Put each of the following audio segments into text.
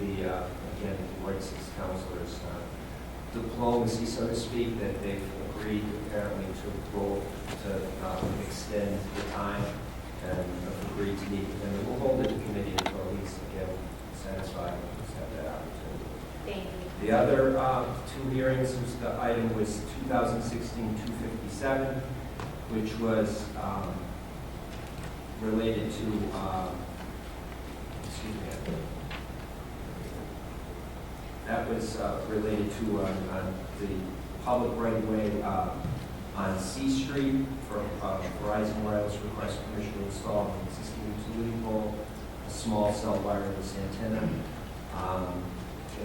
the, uh, again, Royce's counselors, uh, diplomacy, so to speak, that they've agreed apparently to roll, to uh, extend the time and have agreed to meet, and we'll hold it to committee until at least, again, satisfied, and have that opportunity. Thank you. The other uh, two hearings, was the item was 2016-257, which was um, related to, um, excuse me, that was uh, related to uh, on the public right-of-way uh, on C Street for uh, Verizon Wireless request permission to install an existing utility pole, a small cell wireless antenna. Um,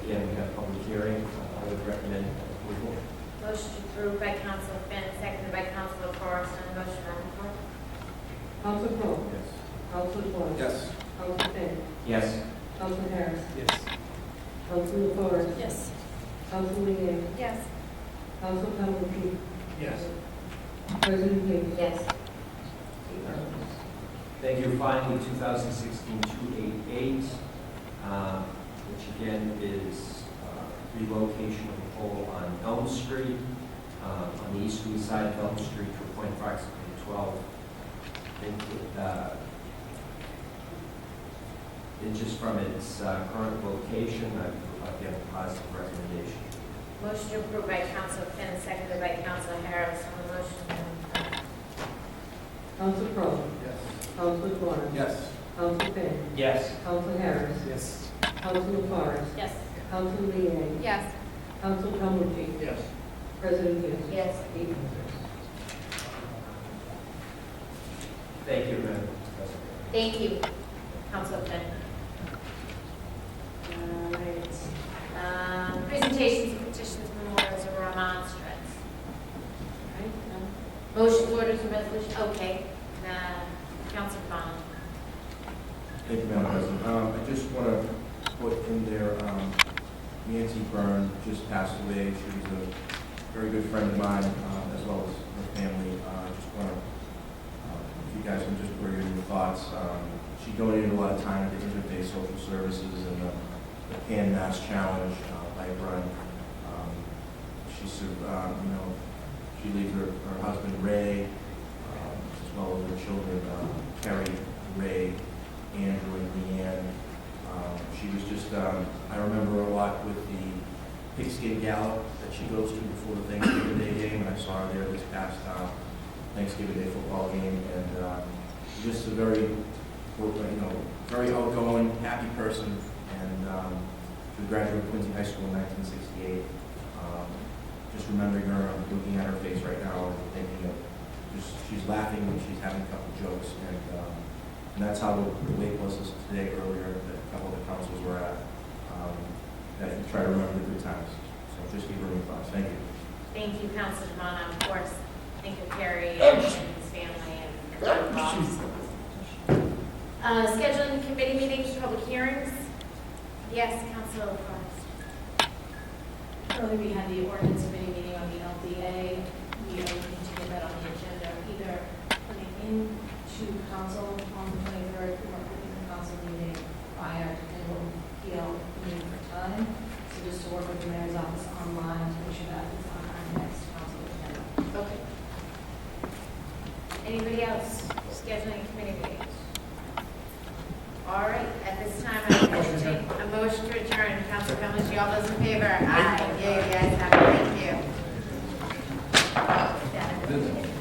Again, we have public hearing, Uh, I would recommend approval. Motion approved by Council Finn, seconded by Council Forrest on the motion, Madam Clerk. Council Crowe, Yes. Council Yes. Vaughn, Council Finn, Yes. Council Harris, Yes. Council LaFors, Yes. Council Leeang, Yes. Council Calhoun, Yes. President Hughes. Yes. Thank you. Finally, 2016-288, uh, which again is uh, relocation of a pole on Elm Street, uh, on the easterly side of Elm Street to a point approximately 12. I think it, uh, It's just from its uh, current location, I I give a positive recommendation. Motion approved by Council Finn, seconded by Council Harris on the motion, Madam Clerk. Council Crowe, Yes. Council Vaughn, Yes. Council Finn, Yes. Council Harris, Yes. Council LaFors, Yes. Council Leeang, Yes. Council Calhoun, Yes. President Hughes. Yes. Eight members. Thank you, Madam President. Thank you, Council Finn. All right. Um, Presentations, petitions, memorials, or remonstrance. All right, um, no. Motion, orders, and resolution, okay. Uh, Council Bond. Thank you, Madam President. Um, I just want to put in there, um, Nancy Byrne just passed away. She was a very good friend of mine, um, as well as her family. Uh, I just want to, uh, if you guys can just bring in your thoughts. Um, She donated a lot of time to Interfaith Social Services and the the Pan Mass Challenge uh, by Run. Um, She, sur- um, you know, she leaves her her husband Ray, um, as well as her children, uh, Terry, Ray, Andrew and Leanne. Um, She was just, um, I remember a lot with the pigskin gallop that she goes to before the Thanksgiving Day game, and I saw her there this past um, Thanksgiving Day football game, and um, just a very, you know, very outgoing, happy person, and um, she graduated Quincy High School in 1968. Um, Just remembering her, I'm looking at her face right now, and thinking of, just, she's laughing and she's having a couple jokes, and um, and that's how the the wait was this today earlier, that a couple of the councils were at, um, that you try to remember the good times. So just give her your thoughts. Thank you. Thank you, Council Devon, of course, think of Terry and his family and Bob's. Uh, Scheduling committee meetings, public hearings? Yes, Council Forrest. Earlier, we had the ordinance committee meeting on the LDA. We are looking to get that on the agenda, either putting into council on the twenty-third or putting the council meeting prior to the PL meeting for time. So just to work with the mayor's office online to make sure that it's on our next council agenda. Okay. Anybody else scheduling committee meetings? All right, at this time, I'm entertaining a motion to adjourn. Council Calhoun, all those in favor? Aye. Yeah, yeah, yeah, thank you. Done.